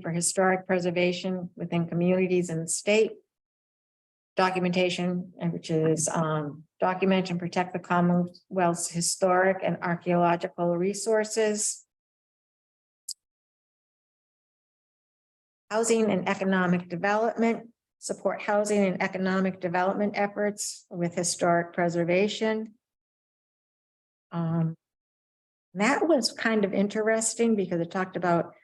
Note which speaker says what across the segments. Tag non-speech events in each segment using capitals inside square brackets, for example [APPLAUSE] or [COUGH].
Speaker 1: for historic preservation within communities and the state. Documentation, and which is um, document and protect the Commonwealth's historic and archaeological resources. Housing and economic development, support housing and economic development efforts with historic preservation. Um, that was kind of interesting because it talked about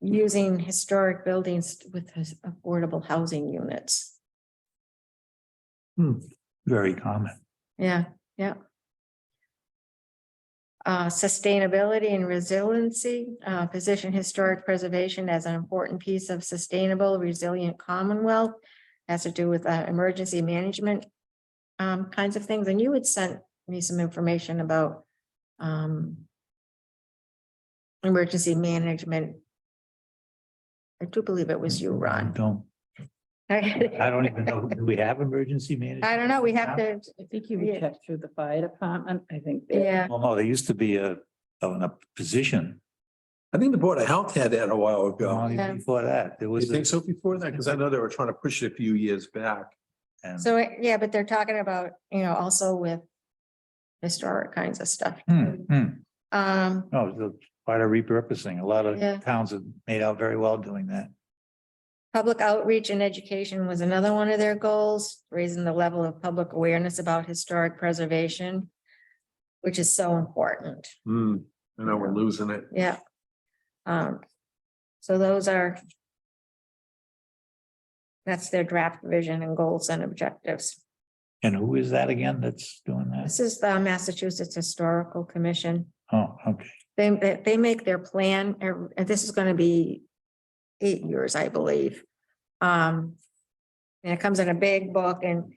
Speaker 1: using historic buildings with his- affordable housing units.
Speaker 2: Very common.
Speaker 1: Yeah, yeah. Uh, sustainability and resiliency, uh, position historic preservation as an important piece of sustainable resilient Commonwealth. Has to do with, uh, emergency management, um, kinds of things. And you had sent me some information about, um, emergency management. I do believe it was you,
Speaker 2: I
Speaker 1: Ron. [LAUGHS]
Speaker 2: Don't, I
Speaker 1: I
Speaker 2: don't even know, do we have emergency management?
Speaker 1: don't know, we have to,
Speaker 3: I think you
Speaker 1: Yeah.
Speaker 3: would check through the fire department, I think. they-
Speaker 1: yeah.
Speaker 2: Well, no, there used to be a, a a position,
Speaker 4: I think the Board of Health had that a while
Speaker 2: long
Speaker 4: ago.
Speaker 1: Yeah.
Speaker 2: before that, there
Speaker 4: You
Speaker 2: was. a-
Speaker 4: think so before that? Because I know they were trying to push it a few years back.
Speaker 2: and-
Speaker 1: So, it- yeah, but they're talking about, you know, also with historic kinds of stuff.
Speaker 2: Hmm, hmm.
Speaker 1: Um,
Speaker 2: No, it's a part of repurposing. A lot
Speaker 1: Yeah.
Speaker 2: of towns have made out very well doing that.
Speaker 1: public outreach and education was another one of their goals, raising the level of public awareness about historic preservation, which is so important.
Speaker 4: Hmm, I know we're losing it.
Speaker 1: Yeah. Um, so those are that's their draft vision and goals and objectives.
Speaker 2: And who is that again that's doing that?
Speaker 1: This is the Massachusetts Historical Commission.
Speaker 2: Oh, okay.
Speaker 1: They, they, they make their plan, ev- and this is gonna be eight years, I believe. Um, and it comes in a big book and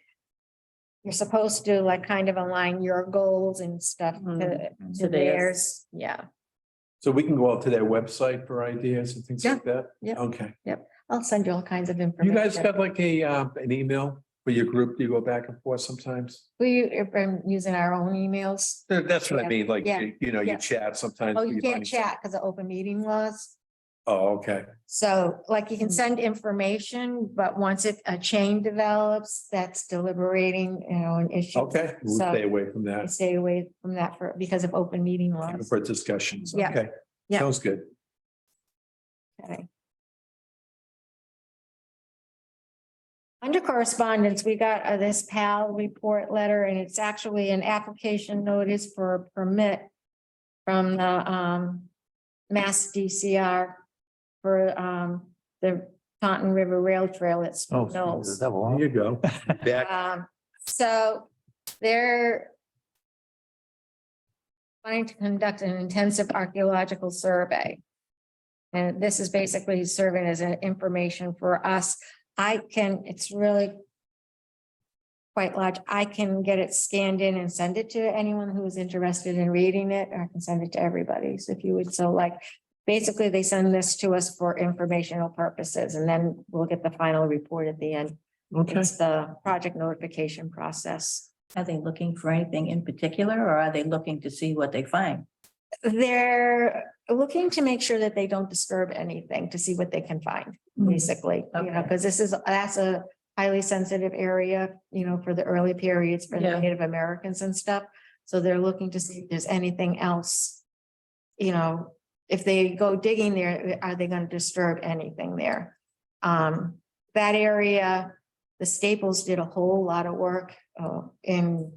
Speaker 1: you're supposed to like kind of align your goals and stuff to,
Speaker 2: Mhm.
Speaker 1: to
Speaker 3: To theirs.
Speaker 1: theirs, yeah.
Speaker 4: So we can go out to their website for ideas and things like that?
Speaker 1: yeah.
Speaker 4: Okay.
Speaker 1: I'll send you all kinds of
Speaker 4: You
Speaker 1: information.
Speaker 4: guys got like a, uh, an email for your group? Do you go back and forth sometimes?
Speaker 1: We, have been using our own emails.
Speaker 4: That- That's what
Speaker 1: Yeah.
Speaker 4: I mean, like,
Speaker 1: Yeah.
Speaker 4: you you know,
Speaker 1: Yeah.
Speaker 4: you chat sometimes.
Speaker 1: Oh, you
Speaker 4: find
Speaker 1: can't
Speaker 4: some-
Speaker 1: chat because of open meeting laws.
Speaker 4: Oh, okay.
Speaker 1: So like you can send information, but once it, a chain develops, that's deliberating, you know, an issue.
Speaker 4: Okay, we'll
Speaker 1: So-
Speaker 4: stay away from
Speaker 1: I
Speaker 4: that
Speaker 1: stay away from that for, because of open meeting laws.
Speaker 4: for discussions.
Speaker 1: Yeah.
Speaker 4: Okay.
Speaker 1: Yeah.
Speaker 4: Sounds good.
Speaker 1: Okay. Under correspondence, we got uh, this PAL report letter, and it's actually an application notice for a permit from the um Mass DCR for um the Taunton River Rail Trail at
Speaker 2: Oh,
Speaker 1: Spoon
Speaker 2: so
Speaker 1: Knolls.
Speaker 2: that
Speaker 4: There
Speaker 2: belongs-
Speaker 4: you go. Back.
Speaker 1: Um, so they're planning to conduct an intensive archaeological survey. And this is basically serving as an information for us. I can, it's really quite large. I can get it scanned in and send it to anyone who is interested in reading it, or I can send it to everybody. So if you would so like, basically, they send this to us for informational purposes, and then we'll get the final report at the end.
Speaker 4: Okay.
Speaker 1: It's the project notification process.
Speaker 3: Are they looking for anything in particular, or are they looking to see what they find?
Speaker 1: They're looking to make sure that they don't disturb anything to see what they can find, basically, you know,
Speaker 3: Okay.
Speaker 1: because this is, that's a highly sensitive area, you know, for the early periods for the
Speaker 3: Yeah.
Speaker 1: Native Americans and stuff. So they're looking to see if there's anything else, you know, if they go digging there, are they going to disturb anything there? Um, that area, the Staples did a whole lot of work, uh, in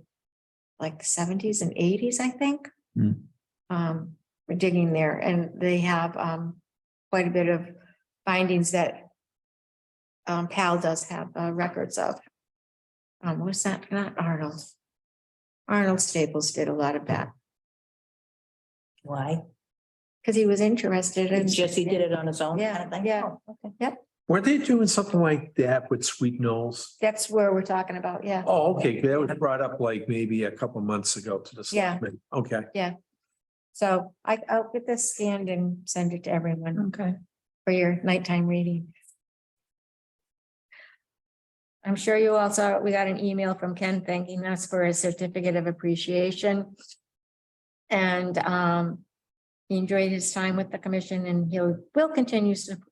Speaker 1: like seventies and eighties, I think.
Speaker 2: Hmm.
Speaker 1: Um, we're digging there and they have, um, quite a bit of findings that um, Pal does have, uh, records of. Um, was that not Arnold? Arnold Staples did a lot of that
Speaker 3: Why?
Speaker 1: because he was interested in.
Speaker 3: It's just he did it on his own?
Speaker 1: Yeah,
Speaker 3: kind of thing?
Speaker 1: yeah.
Speaker 3: Oh, okay.
Speaker 4: Were they doing something like that with Sweet Knolls?
Speaker 1: That's where we're talking about, yeah.
Speaker 4: Oh, okay, that was brought up like maybe a couple months ago to the
Speaker 1: Yeah.
Speaker 4: selectmen. Okay,
Speaker 1: So I, I'll get this scanned and send it to everyone
Speaker 3: Okay.
Speaker 1: for your nighttime reading. I'm sure you all saw, we got an email from Ken thanking us for his certificate of appreciation. And um, he enjoyed his time with the commission and he'll, will continue to